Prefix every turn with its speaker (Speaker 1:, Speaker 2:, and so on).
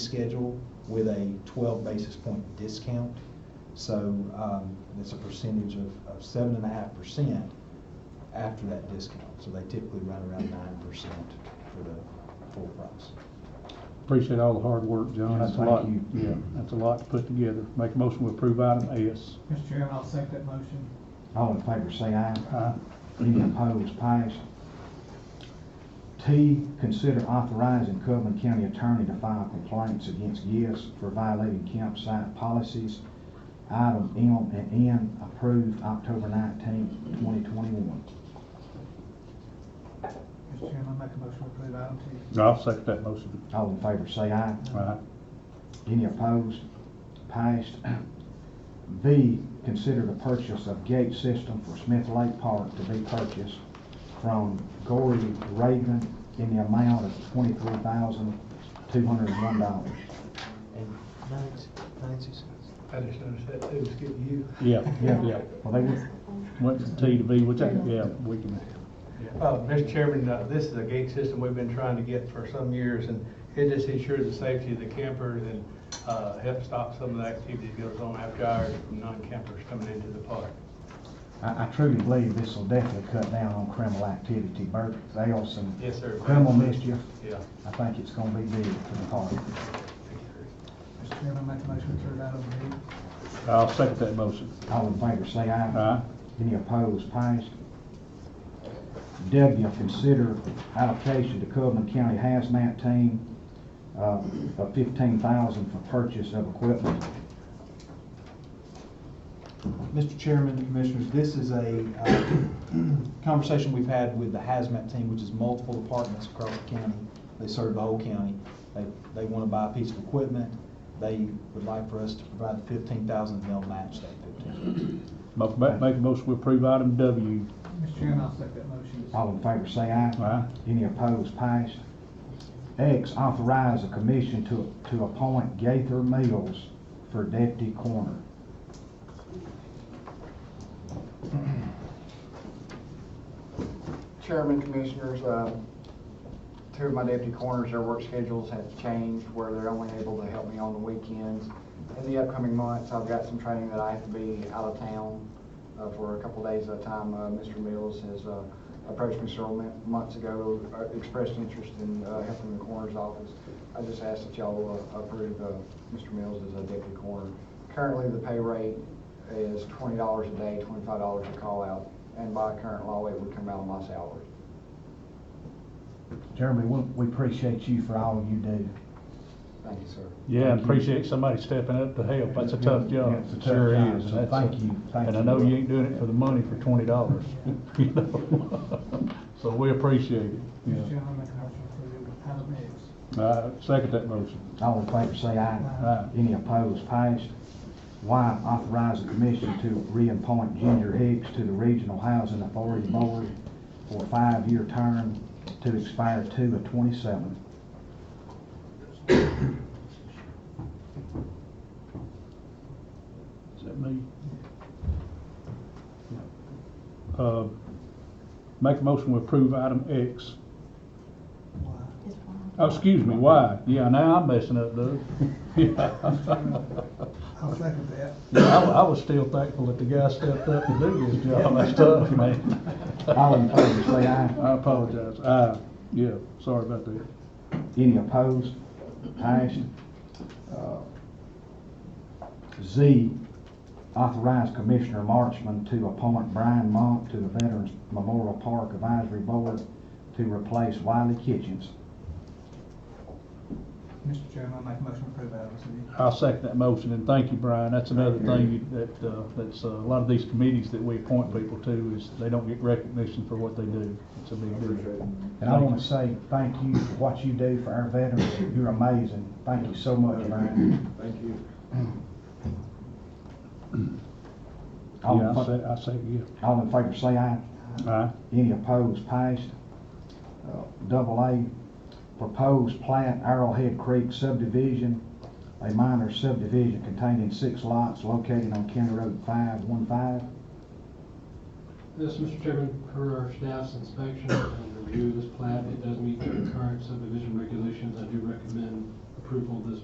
Speaker 1: schedule with a twelve basis point discount. So, um, it's a percentage of, of seven and a half percent after that discount. So they typically run around nine percent for the full price.
Speaker 2: Appreciate all the hard work, John.
Speaker 1: Yes,
Speaker 2: That's a
Speaker 1: thank
Speaker 2: lot,
Speaker 1: you.
Speaker 2: yeah, that's a lot to put together. Make a motion to approve item S.
Speaker 3: Mr. Chairman, I'll second that motion.
Speaker 4: All in favor, say aye.
Speaker 2: Aye.
Speaker 4: Any opposed, pass. T, consider authorizing Coleman County Attorney to file complaints against GIS for violating campsite policies. Item M and N approved October nineteenth, twenty twenty-one.
Speaker 3: Mr. Chairman, I make a motion to approve item T.
Speaker 2: I'll second that motion.
Speaker 4: All in favor, say aye.
Speaker 2: Aye.
Speaker 4: Any opposed? Passed. V, consider the purchase of gate system for Smith Lake Park to be purchased from Gory Raven in the amount of twenty-three thousand, two hundred and one dollars.
Speaker 1: And Nancy, Nancy says.
Speaker 5: I just noticed that too, it's getting you.
Speaker 2: Yeah,
Speaker 4: Yeah.
Speaker 2: yeah.
Speaker 4: Well, they would,
Speaker 2: Went from T to V, which I, yeah, we can,
Speaker 5: Uh, Mr. Chairman, uh, this is a gate system we've been trying to get for some years, and it just ensures the safety of the campers and, uh, helps stop some of the activity that goes on after hours from non-campers coming into the park.
Speaker 4: I, I truly believe this will definitely cut down on criminal activity, Bert, there's some
Speaker 5: Yes, sir.
Speaker 4: criminal mischief.
Speaker 5: Yeah.
Speaker 4: I think it's gonna be big for the park.
Speaker 3: Mr. Chairman, I make a motion to approve item D.
Speaker 2: I'll second that motion.
Speaker 4: All in favor, say aye.
Speaker 2: Aye.
Speaker 4: Any opposed, passed. W, consider allocation to Coleman County Hazmat Team uh, of fifteen thousand for purchase of equipment.
Speaker 1: Mr. Chairman, Commissioners, this is a uh, conversation we've had with the hazmat team, which is multiple departments across the county. They serve the whole county. They, they want to buy a piece of equipment. They would like for us to provide the fifteen thousand, they'll match that fifteen.
Speaker 2: Mo- ma- Make a motion to approve item W.
Speaker 3: Mr. Chairman, I'll second that motion.
Speaker 4: All in favor, say aye.
Speaker 2: Aye.
Speaker 4: Any opposed, passed. X, authorize a commission to, to appoint Gaither Mills for deputy coroner.
Speaker 6: Chairman, Commissioners, uh, two of my deputy coroners, their work schedules have changed where they're only able to help me on the weekends. In the upcoming months, I've got some training that I have to be out of town uh, for a couple days at a time. Uh, Mr. Mills has uh, approached me several mon- months ago, uh, expressed interest in uh, helping the coroner's office. I just ask that y'all uh, approve uh, Mr. Mills as a deputy coroner. Currently, the pay rate is twenty dollars a day, twenty-five dollars a call out, and by current law, it would come out of my salary.
Speaker 4: Jeremy, we we appreciate you for all you do.
Speaker 6: Thank you, sir.
Speaker 2: Yeah, and appreciate somebody stepping up to help. That's a tough
Speaker 4: Yeah,
Speaker 2: job.
Speaker 4: it's a tough
Speaker 2: Sure
Speaker 4: job,
Speaker 2: is. and
Speaker 4: so
Speaker 2: that's a-
Speaker 4: thank you, thank
Speaker 2: And I
Speaker 4: you.
Speaker 2: know you ain't doing it for the money for twenty dollars. So we appreciate it,
Speaker 3: Mr.
Speaker 2: yeah.
Speaker 3: Chairman, I make a motion to approve item X.
Speaker 2: Uh, second that motion.
Speaker 4: All in favor, say aye.
Speaker 2: Aye.
Speaker 4: Any opposed, passed. Y, authorize the commission to reappoint Ginger Hicks to the Regional Housing Authority Board for a five-year term to expire two of twenty-seven.
Speaker 2: Is that me? Uh, Make a motion to approve item X.
Speaker 3: Why?
Speaker 7: It's fine.
Speaker 2: Oh, excuse me, Y. Yeah, now I'm messing up, Doug. Yeah.
Speaker 3: I'll second that.
Speaker 2: Yeah, I wa- I was still thankful that the guy stepped up to do his job. That's tough, man.
Speaker 4: All in favor, say aye.
Speaker 2: I apologize. Uh, yeah, sorry about that.
Speaker 4: Any opposed? Passed. Uh, Z, authorize Commissioner Marchman to appoint Brian Monk to the Veterans Memorial Park Advisory Board to replace Wiley Kitchens.
Speaker 3: Mr. Chairman, I make a motion to approve item C.
Speaker 2: I'll second that motion, and thank you, Brian. That's another thing you- that, uh, that's, uh, a lot of these committees that we appoint people to is they don't get recognition for what they do. It's a big deal.
Speaker 4: And I want to say thank you for what you do for our veterans. You're amazing. Thank you so much, Brian.
Speaker 5: Thank you.
Speaker 4: All
Speaker 2: Yeah,
Speaker 4: in
Speaker 2: Oh, I say,
Speaker 4: fa-
Speaker 2: I say, yeah.
Speaker 4: all in favor, say aye.
Speaker 2: Aye.
Speaker 4: Any opposed, passed. Uh, Double A, proposed plat Arrowhead Creek subdivision, a minor subdivision containing six lots located on County Road 515.
Speaker 8: Yes, Mr. Chairman, per our staff's inspection and review of this plat, it does meet the current subdivision regulations. I do recommend approval of this